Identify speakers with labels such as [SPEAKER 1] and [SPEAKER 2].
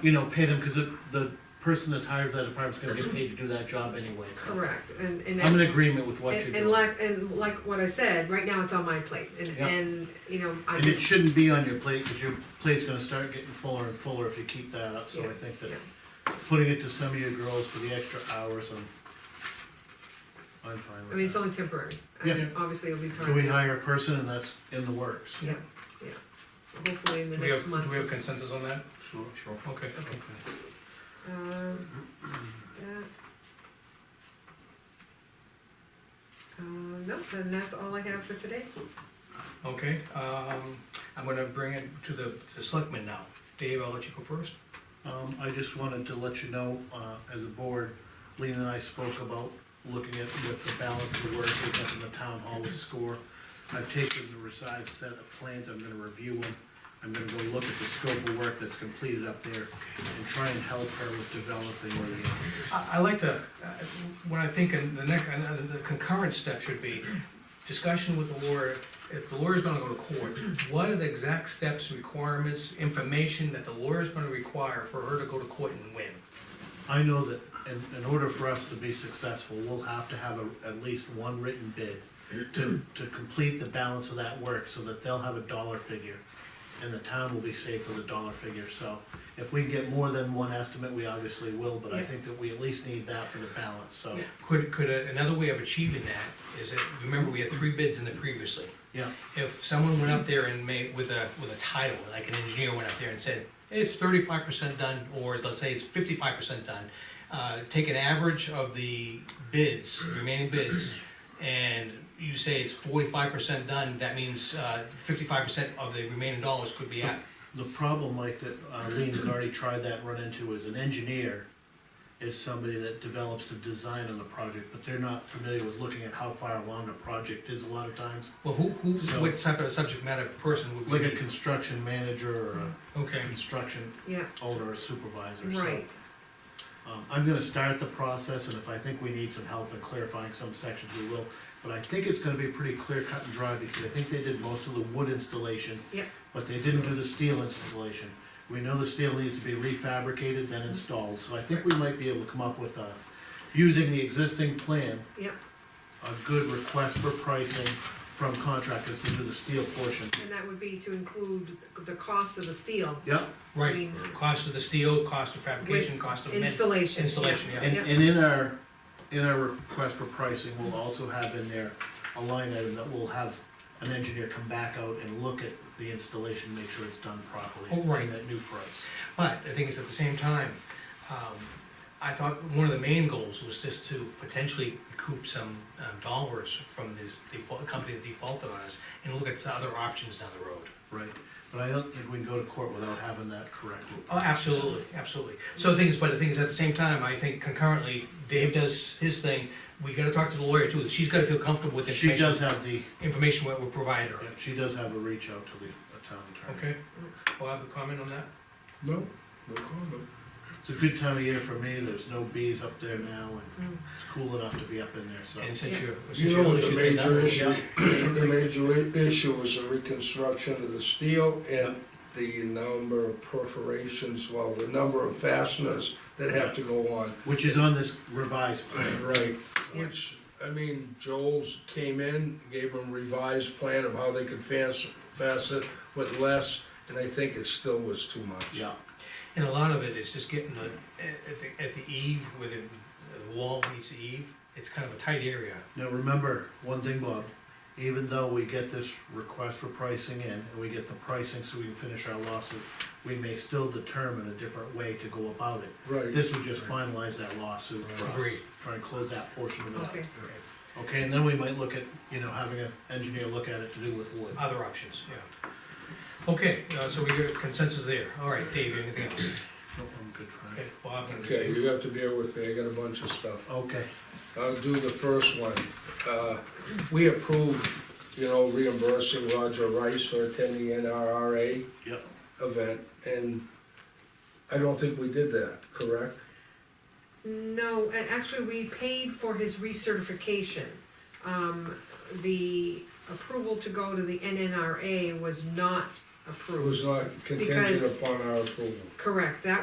[SPEAKER 1] you know, pay them, cause the, the person that hires that department's gonna get paid to do that job anyway. so.
[SPEAKER 2] Correct, and, and.
[SPEAKER 1] I'm in agreement with what
[SPEAKER 2] And,
[SPEAKER 1] you're
[SPEAKER 2] and
[SPEAKER 1] doing,
[SPEAKER 2] like, and like what I said, right now it's on my plate, and,
[SPEAKER 1] Yeah.
[SPEAKER 2] and, you know, I.
[SPEAKER 1] and it shouldn't be on your plate, cause your plate's gonna start getting fuller and fuller if you keep that up, so
[SPEAKER 2] Yeah,
[SPEAKER 1] I think that
[SPEAKER 2] yeah.
[SPEAKER 1] putting it to some of your girls for the extra hours, I'm, I'm fine
[SPEAKER 2] I mean,
[SPEAKER 1] with
[SPEAKER 2] it's
[SPEAKER 1] that.
[SPEAKER 2] only temporary,
[SPEAKER 1] Yeah.
[SPEAKER 2] and obviously it'll be part
[SPEAKER 1] So
[SPEAKER 2] of.
[SPEAKER 1] we hire a person and that's in the works.
[SPEAKER 2] Yeah, yeah, so hopefully in the
[SPEAKER 3] Do we have,
[SPEAKER 2] next month.
[SPEAKER 3] do we have consensus on that?
[SPEAKER 1] Sure, sure.
[SPEAKER 3] Okay.
[SPEAKER 2] Okay.
[SPEAKER 1] Okay.
[SPEAKER 2] Um, that- Uh, no, then that's all I have for today.
[SPEAKER 3] Okay, um, I'm gonna bring it to the, the selectmen now. Dave, I'll let you go first.
[SPEAKER 1] Um, I just wanted to let you know, uh, as a board, Lean and I spoke about looking at what the balance of work is up in the town hall with score. I've taken the recited set of plans, I'm gonna review them, I'm gonna go look at the scope of work that's completed up there and try and help her with developing where the,
[SPEAKER 3] I, I like to, uh, what I think in the next, uh, the concurrent step should be discussion with the lawyer. If the lawyer's gonna go to court, what are the exact steps, requirements, information that the lawyer's gonna require for her to go to court and win?
[SPEAKER 1] I know that in, in order for us to be successful, we'll have to have a, at least one written bid to, to complete the balance of that work, so that they'll have a dollar figure. And the town will be safe with a dollar figure, so if we can get more than one estimate, we obviously will, but I
[SPEAKER 2] Yeah.
[SPEAKER 1] think that we at least need that for the balance, so,
[SPEAKER 3] Could, could, a- another way of achieving that is that, remember, we had three bids in the previously.
[SPEAKER 1] yeah.
[SPEAKER 3] if someone went up there and made, with a, with a title, like an engineer went up there and said, it's thirty-five percent done, or let's say it's fifty-five percent done, uh, take an average of the bids, remaining bids, and you say it's forty-five percent done, that means, uh, fifty-five percent of the remaining dollars could be out.
[SPEAKER 1] The problem, Mike, that uh, Lean has already tried that, and run into, is an engineer is somebody that develops the design on the project, but they're not familiar with looking at how far along the project is a lot of times.
[SPEAKER 3] Well, who, who,
[SPEAKER 1] So-
[SPEAKER 3] what type of subject matter person would we
[SPEAKER 1] like a
[SPEAKER 3] need?
[SPEAKER 1] construction manager or a
[SPEAKER 3] Okay,
[SPEAKER 1] construction
[SPEAKER 2] Yeah,
[SPEAKER 1] owner or supervisor, so.
[SPEAKER 2] right,
[SPEAKER 1] Um, I'm gonna start the process, and if I think we need some help in clarifying some sections, we will. But I think it's gonna be pretty clear cut and dry, because I think they did most of the wood installation,
[SPEAKER 2] yep,
[SPEAKER 1] but they didn't do the steel installation. We know the steel needs to be refabricated, then installed, so I think we might be able to come up with a, using the existing plan,
[SPEAKER 2] yep,
[SPEAKER 1] a good request for pricing from contractors to do the steel portion.
[SPEAKER 2] and that would be to include the cost of the steel.
[SPEAKER 1] Yep,
[SPEAKER 2] I
[SPEAKER 3] right,
[SPEAKER 2] mean,
[SPEAKER 3] cost of the steel, cost of fabrication,
[SPEAKER 2] With
[SPEAKER 3] cost of men.
[SPEAKER 2] Installation.
[SPEAKER 3] Installation, yeah.
[SPEAKER 1] And,
[SPEAKER 2] Yep.
[SPEAKER 1] and in our, in our request for pricing, we'll also have in there a line item that will have an engineer come back out and look at the installation, make sure it's done properly.
[SPEAKER 3] Oh, right.
[SPEAKER 1] in That new price.
[SPEAKER 3] But the thing is, at the same time, um, I thought one of the main goals was just to potentially recoup some um, dollars from this default, company that defaulted on us, and look at some other options down the road.
[SPEAKER 1] Right, but I don't think we can go to court without having that corrected.
[SPEAKER 3] Oh, absolutely, absolutely. So the thing is, but the thing is, at the same time, I think concurrently, Dave does his thing, we gotta talk to the lawyer too, she's gotta feel comfortable with the
[SPEAKER 1] She does
[SPEAKER 3] information,
[SPEAKER 1] have the,
[SPEAKER 3] information what we're providing her,
[SPEAKER 1] yeah, she does have a reach out to the uh, town attorney.
[SPEAKER 3] okay? Bob, a comment on that?
[SPEAKER 4] No, no comment.
[SPEAKER 1] It's a good time of year for me, there's no bees up there now, and
[SPEAKER 2] Mm.
[SPEAKER 1] it's cool enough to be up in there, so.
[SPEAKER 3] And since
[SPEAKER 2] Yeah.
[SPEAKER 3] you're, since
[SPEAKER 4] You
[SPEAKER 3] you're
[SPEAKER 4] know,
[SPEAKER 3] on
[SPEAKER 4] the
[SPEAKER 3] issue,
[SPEAKER 4] major issue,
[SPEAKER 1] Yeah.
[SPEAKER 4] the major i- issue is the reconstruction of the steel and the number of perforations, well, the number of fasteners that have to go on.
[SPEAKER 1] Which is on this revised plan.
[SPEAKER 4] Right, which, I mean, Joel's came in, gave them revised plan of how they could fas- fasten with less, and I think it still was too much.
[SPEAKER 1] Yeah,
[SPEAKER 3] And a lot of it is just getting the, at the, at the eve, where the, the wall meets the eve, it's kind of a tight area.
[SPEAKER 1] Now, remember, one thing, Bob, even though we get this request for pricing in, and we get the pricing so we can finish our lawsuit, we may still determine a different way to go about it.
[SPEAKER 4] Right.
[SPEAKER 1] This would just finalize that lawsuit for us,
[SPEAKER 3] Agreed.
[SPEAKER 1] try and close that portion of it up.
[SPEAKER 2] okay,
[SPEAKER 1] Okay, and then we might look at, you know, having an engineer look at it to do with wood.
[SPEAKER 3] Other options, yeah. Okay, uh, so we got consensus there. All right, Dave, anything else?
[SPEAKER 1] Nope, Oh, I'm good for
[SPEAKER 3] Okay,
[SPEAKER 1] that.
[SPEAKER 3] Bob, and-
[SPEAKER 4] Okay, you have to bear with me, I got a bunch of stuff.
[SPEAKER 1] Okay,
[SPEAKER 4] I'll do the first one. Uh, We approved, you know, reimbursing Roger Rice for attending NRRA
[SPEAKER 1] yep,
[SPEAKER 4] event, and I don't think we did that, correct?
[SPEAKER 2] no, a- actually, we paid for his recertification. Um, the approval to go to the NNRA was not
[SPEAKER 4] It was
[SPEAKER 2] approved,
[SPEAKER 4] not
[SPEAKER 2] Because-
[SPEAKER 4] contingent upon our approval.
[SPEAKER 2] correct, that